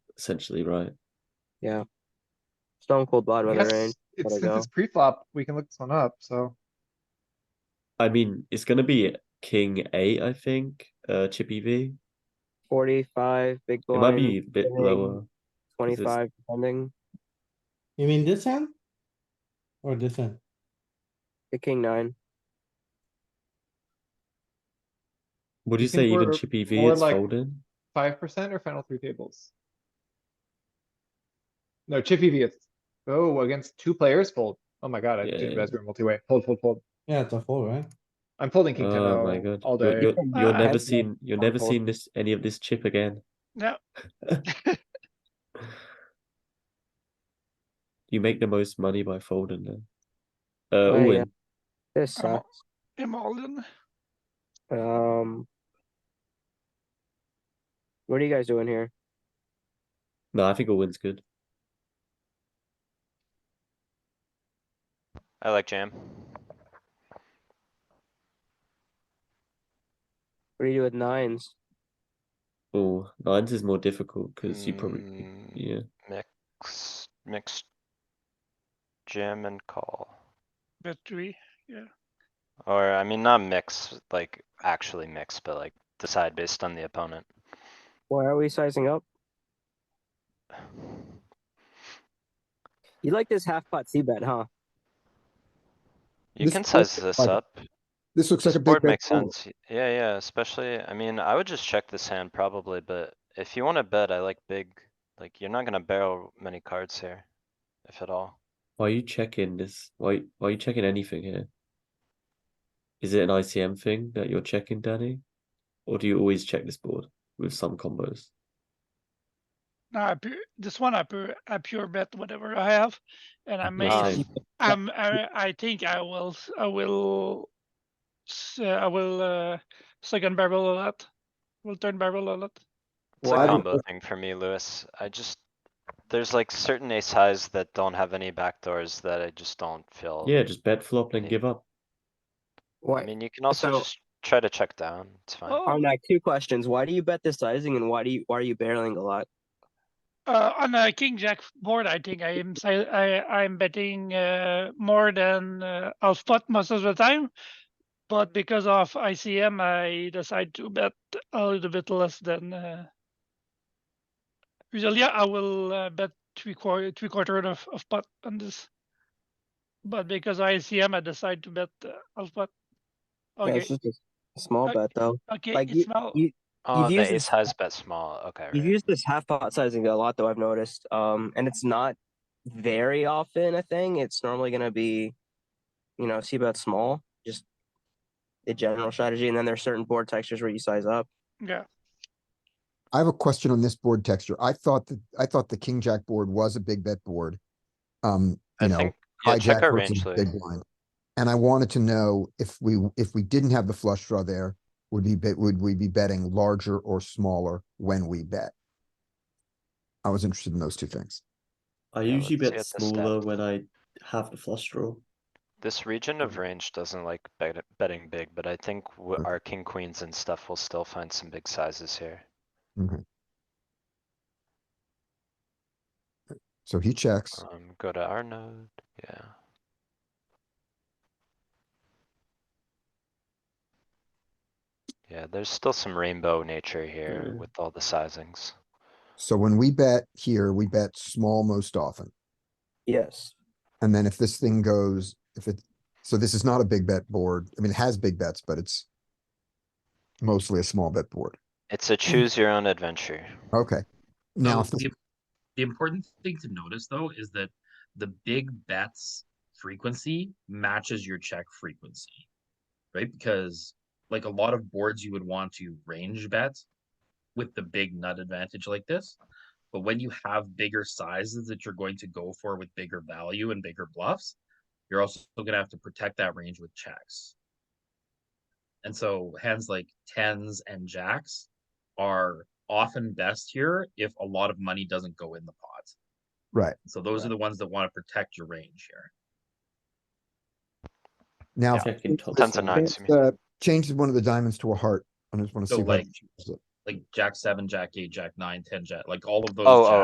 essentially, right? Yeah. Stone cold blood I weather guess rain. it's- gotta Since go. it's pre-flop, we can look this one up, so. I mean, it's gonna be king eight, I think. Uh, chippy V. Forty-five big It blind. might be a bit king. lower. Twenty-five depending. You mean this hand? Or this hand? The king nine. Would you You think say even we're chippy V more it's like- folding? Five percent or final three tables? No, Chippy V, it's, oh, against two players fold. Oh my god, I Yeah, did yeah. Raspberry multi-way. Fold, fold, fold. Yeah, it's a fold, right? I'm folding king ten Oh my god! all You're, day. you're, Ah, you're I never have- seen you're I'm never folding. seen this any of this chip again. No. You make the most money by folding then. Uh, Oh, all yeah. in. This I'm all- sucks. I'm all in. Um. What are you guys doing here? No, I think all win's good. I like jam. What do you do with nines? Oh, nines is more difficult because you probably Mm, yeah. Mix, mix. Jam and call, Bet three. or I mean, not mix, like actually mix, but like decide based on the opponent. Why are we sizing up? You like this half pot C bet, huh? You This can looks size this like- up. This looks like This a big board bet makes fold. sense. Yeah, yeah, especially, I mean, I would just check this hand probably, but if you wanna bet, I like big, like, you're not gonna barrel many cards here. If at all. Why are you checking this? Why why are you checking anything here? Is it an ICM thing that you're checking, Danny? Or do you always check this board with some combos? No, I pu- this one I pure I pure bet whatever I have, and I Me make. too. I'm I, I think I will s- I will. s- uh, I will uh, second barrel a lot. Will turn barrel a lot. It's a Well, I combo thing for me, Lewis. I just, there's like certain ace highs that don't have any backdoors that I just don't feel. Oh. Yeah, just bet flop then Yeah. give up. I Why? mean, you can also So- just try to check down, it's fine. Oh, On that, two questions. Why do you bet this sizing, and why do you why are you barreling a lot? Uh, on a king jack board, I think I am si- I I'm betting uh, more than uh, half pot most of the time, but because of ICM, I decide to bet a little bit less than. Uh, usually, I will uh, bet three quarter three quarter of of pot on this, but because of ICM, I decide to bet uh, half pot. Yeah, Okay, it's just a small Okay. bet though. okay, like it's now. You Oh, used the this- ace highs bet small, okay, You've right. used this half pot sizing a lot though, I've noticed. Um, and it's not very often a thing. It's normally gonna be, you know, see about small, just the general strategy. And then there's certain board textures where you size up. Yeah, I have a question on this board texture. I thought that, I thought the king jack board was a big bet board. Um, you I know, think, yeah, check hijack our versus range, Louis. big blind. And I wanted to know if we, if we didn't have the flush draw there, would we bet, would we be betting larger or smaller when we bet? I was interested in those two things. I Yeah, usually let's bet get the stat. smaller when I have the flush draw. This region of range doesn't like bet- betting big, but I think w- Okay. our king queens and stuff will still find some big sizes here. So he checks. Um, go to our node, yeah. Yeah, there's still some rainbow nature here Mm. with all the sizings. So when we bet here, we bet small most often. Yes. And then if this thing goes, if it, so this is not a big bet board. I mean, it has big bets, but it's mostly a small bet board. It's a choose your own adventure. Okay. Now, So if this- The the important thing to notice though is that the big bets frequency matches your check frequency. Right? Because like a lot of boards you would want to range bet with the big nut advantage like this. But when you have bigger sizes that you're going to go for with bigger value and bigger bluffs, you're also gonna have to protect that range with checks. And so hands like tens and jacks are often best here if a lot of money doesn't go in the pot. right. So those are the ones that want to protect your range here. Now, if Checking top Tons of side. nines. this, uh, changes one of the diamonds to a heart. I just want to So see. what- like, like jack seven, jack eight, jack nine, ten, jack, like all of those. Oh, oh,